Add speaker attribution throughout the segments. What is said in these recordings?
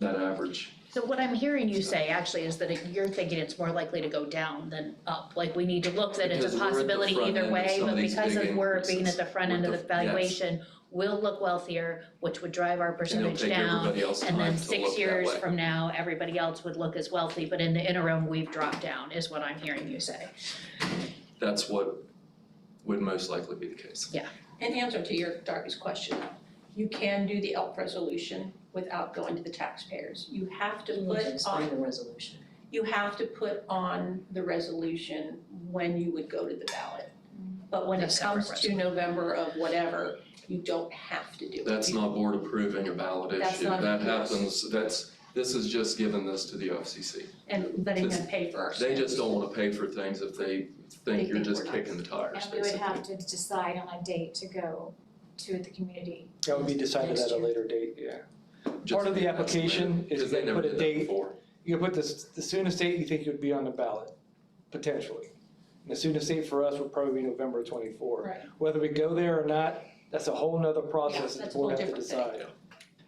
Speaker 1: that average.
Speaker 2: So what I'm hearing you say actually is that it- you're thinking it's more likely to go down than up, like we need to look that
Speaker 1: Because
Speaker 2: it's a
Speaker 1: we're at the
Speaker 2: possibility
Speaker 1: front end
Speaker 2: either
Speaker 1: of
Speaker 2: way,
Speaker 1: some of
Speaker 2: but
Speaker 1: these
Speaker 2: because
Speaker 1: big
Speaker 2: of we're being at
Speaker 1: increases,
Speaker 2: the front
Speaker 1: we're
Speaker 2: end of the
Speaker 1: the- yes.
Speaker 2: valuation, we'll look wealthier, which would drive our
Speaker 1: And it'll
Speaker 2: percentage
Speaker 1: take
Speaker 2: down.
Speaker 1: everybody else time
Speaker 2: And
Speaker 1: to look
Speaker 2: then
Speaker 1: that way.
Speaker 2: six years from now, everybody else would look as wealthy, but in the interim, we've dropped down, is what I'm hearing you say.
Speaker 1: That's what would most likely be the case.
Speaker 3: In answer to your Darby's question, though, you can do the ELP resolution without going to the taxpayers. You have to put on,
Speaker 4: the resolution.
Speaker 3: you have to put on the resolution when you would go to the ballot. But when
Speaker 2: The
Speaker 3: it
Speaker 2: separate
Speaker 3: comes to November of whatever, you don't have to do it.
Speaker 1: That's not board approving a ballot
Speaker 3: That's
Speaker 1: issue.
Speaker 3: not-
Speaker 1: That
Speaker 3: yes.
Speaker 1: happens, that's, this is just giving this to the OFCC.
Speaker 3: And letting them pay for ourselves.
Speaker 1: They just don't wanna pay for things if they think you're
Speaker 3: think
Speaker 1: just
Speaker 3: we're nuts.
Speaker 1: kicking the tires,
Speaker 5: And we would
Speaker 1: basically.
Speaker 5: have to decide on a date to go to the community.
Speaker 6: That would be decided
Speaker 5: Next
Speaker 6: at a
Speaker 5: year.
Speaker 6: later date, yeah.
Speaker 1: Just
Speaker 6: Part of the
Speaker 1: think that's
Speaker 6: application
Speaker 1: later,
Speaker 6: is
Speaker 1: 'cause they
Speaker 6: they
Speaker 1: never
Speaker 6: put a
Speaker 1: did that
Speaker 6: date.
Speaker 1: before.
Speaker 6: You could put this, the soonest date you think you'd be on the ballot, potentially. And the soonest date for us would probably be November twenty-four.
Speaker 3: Right.
Speaker 6: Whether we go there or not, that's a whole nother process that
Speaker 3: that's
Speaker 6: the board
Speaker 3: a
Speaker 6: has to
Speaker 3: whole different
Speaker 6: decide.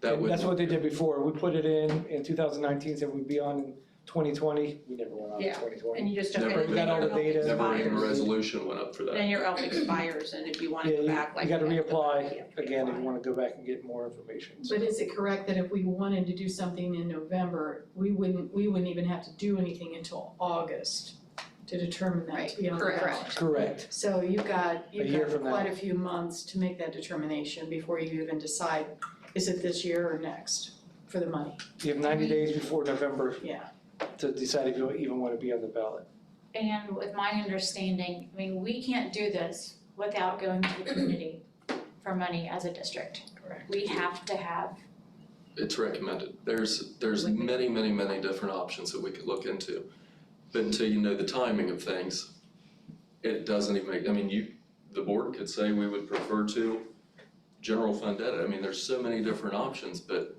Speaker 1: That
Speaker 6: And
Speaker 1: would,
Speaker 6: that's what they did before. We put it in, in two thousand nineteen, said we'd be on in twenty twenty. We never went on in
Speaker 3: Yeah.
Speaker 6: twenty twenty.
Speaker 3: And you just don't.
Speaker 1: Never
Speaker 3: and
Speaker 1: even-
Speaker 3: then your
Speaker 6: Got all the
Speaker 3: ELP
Speaker 6: data.
Speaker 1: never even a
Speaker 3: expires.
Speaker 1: resolution went up for that.
Speaker 3: Then your ELP expires and if you wanna
Speaker 6: Yeah,
Speaker 3: go
Speaker 6: you-
Speaker 3: back like.
Speaker 6: You gotta
Speaker 3: have to go back, you have
Speaker 6: reapply
Speaker 3: to
Speaker 6: again if
Speaker 3: reapply.
Speaker 6: you wanna go back and get more information. So
Speaker 4: But is it correct that if we wanted to do something in November, we wouldn't, we wouldn't even have to do anything until August to determine that to be on the
Speaker 3: Right,
Speaker 4: ballot?
Speaker 3: correct.
Speaker 6: Correct.
Speaker 4: So you've got, you've
Speaker 6: year
Speaker 4: got
Speaker 6: from now.
Speaker 4: quite a few months to make that determination before you even decide, is it this year or next for the money?
Speaker 6: You have ninety days before November
Speaker 4: Yeah.
Speaker 6: to decide if you even wanna be on the ballot.
Speaker 5: And with my understanding, I mean, we can't do this without going to the community for money as a district.
Speaker 4: Correct.
Speaker 5: We have to have,
Speaker 1: It's recommended. There's, there's
Speaker 4: Would be.
Speaker 1: many, many, many different options that we could look into. But until you know the timing of things, it doesn't even make, I mean, you, the board could say we would prefer to general fund debt. I mean, there's so many different options, but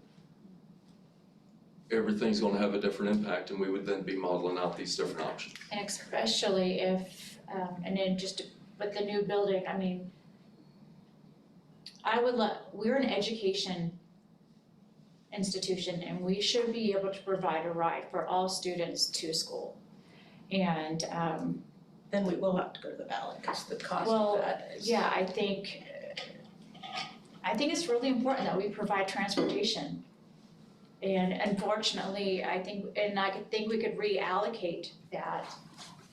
Speaker 1: everything's gonna have a different impact and we would then be modeling out these different options.
Speaker 5: and especially if, um, and then just with the new building, I mean, I would love, we're an education institution and we should be able to provide a ride for all students to school. And, um,
Speaker 3: Then we will have to go to the ballot because the cost
Speaker 5: Well,
Speaker 3: of that is.
Speaker 5: Yeah, I think, I think it's really important that we provide transportation. And unfortunately, I think, and I could think we could reallocate that,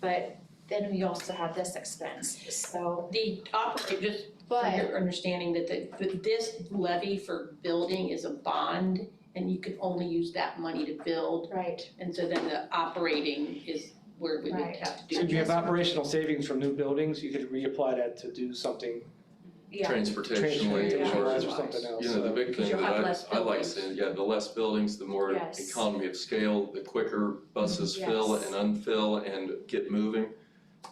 Speaker 5: but then we also have this expense, so,
Speaker 3: The operating, just for
Speaker 5: but,
Speaker 3: your understanding that the, that this levy for building is a bond and you can only use that money to build.
Speaker 5: right,
Speaker 3: And so then the operating is where we would
Speaker 5: Right.
Speaker 3: have to do.
Speaker 6: So if you have
Speaker 3: this.
Speaker 6: operational savings from new buildings, you could reapply that to do something
Speaker 5: yeah,
Speaker 1: Transportationally
Speaker 6: transportation
Speaker 1: or,
Speaker 6: wise
Speaker 3: Transportation-wise
Speaker 6: or something else.
Speaker 1: you know, the
Speaker 6: so-
Speaker 1: big thing
Speaker 3: you'll
Speaker 1: that
Speaker 3: have
Speaker 1: I,
Speaker 3: less
Speaker 1: I like
Speaker 3: buildings.
Speaker 1: saying, yeah, the less buildings, the more
Speaker 5: Yes.
Speaker 1: economy of scale, the quicker buses fill
Speaker 5: Yes.
Speaker 1: and unfill and get moving.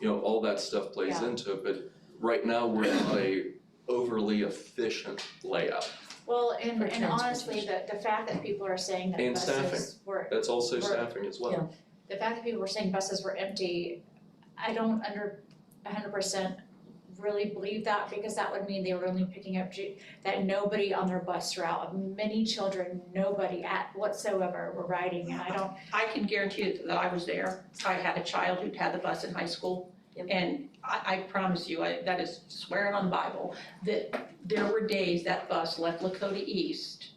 Speaker 1: You know, all that stuff plays
Speaker 5: Yeah.
Speaker 1: into it, but right now, we're not a overly efficient layout.
Speaker 5: well, and
Speaker 3: For
Speaker 5: and honestly, the the fact that people are saying that
Speaker 1: And
Speaker 5: buses were,
Speaker 1: That's also
Speaker 5: Right.
Speaker 1: staffing as well.
Speaker 5: the fact that people were saying buses were empty, I don't under hundred percent really believe that because that would mean they were only picking up ju- that nobody on their bus route, many children, nobody at whatsoever were riding and I don't,
Speaker 3: I can guarantee you that I was there. I had a child who'd had the bus in high school. And I, I promise you, I, that is swearing on Bible, that there were days that bus left Lakota East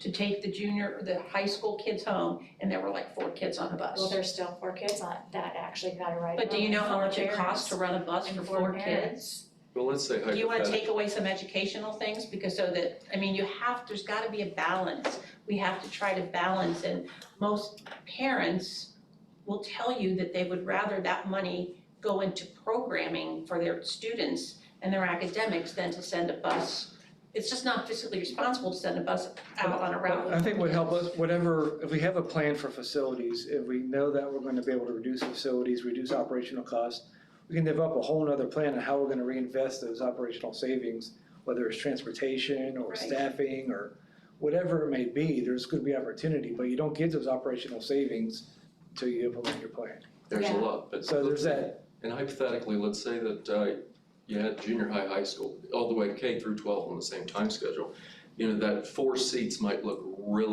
Speaker 3: to take the junior, the high school kids home, and there were like four kids on the bus.
Speaker 5: well, there's still four kids on that actually got a ride.
Speaker 3: But do you know how
Speaker 5: Four
Speaker 3: much it costs to
Speaker 5: parents.
Speaker 3: run a bus
Speaker 5: And
Speaker 3: for
Speaker 5: four
Speaker 3: four
Speaker 5: parents.
Speaker 3: kids?
Speaker 1: Well, let's say
Speaker 3: Do you wanna
Speaker 1: hypothetically,
Speaker 3: take away some educational things, because so that, I mean, you have, there's gotta be a balance. We have to try to balance, and most parents will tell you that they would rather that money go into programming for their students and their academics than to send a bus. It's just not physically responsible to send a bus out on a route.
Speaker 6: I think would help us, whatever, if we have a plan for facilities, if we know that we're gonna be able to reduce facilities, reduce operational costs, we can develop a whole nother plan on how we're gonna reinvest those operational savings, whether it's transportation or
Speaker 3: Right.
Speaker 6: staffing or whatever it may be, there's gonna be opportunity, but you don't get those operational savings until you implement your plan.
Speaker 1: there's a
Speaker 5: Yeah.
Speaker 1: lot, but.
Speaker 6: So there's that
Speaker 1: And hypothetically, let's say that uh, you had junior high, high school, all the way K through twelve on the same time schedule. You know, that four seats might look really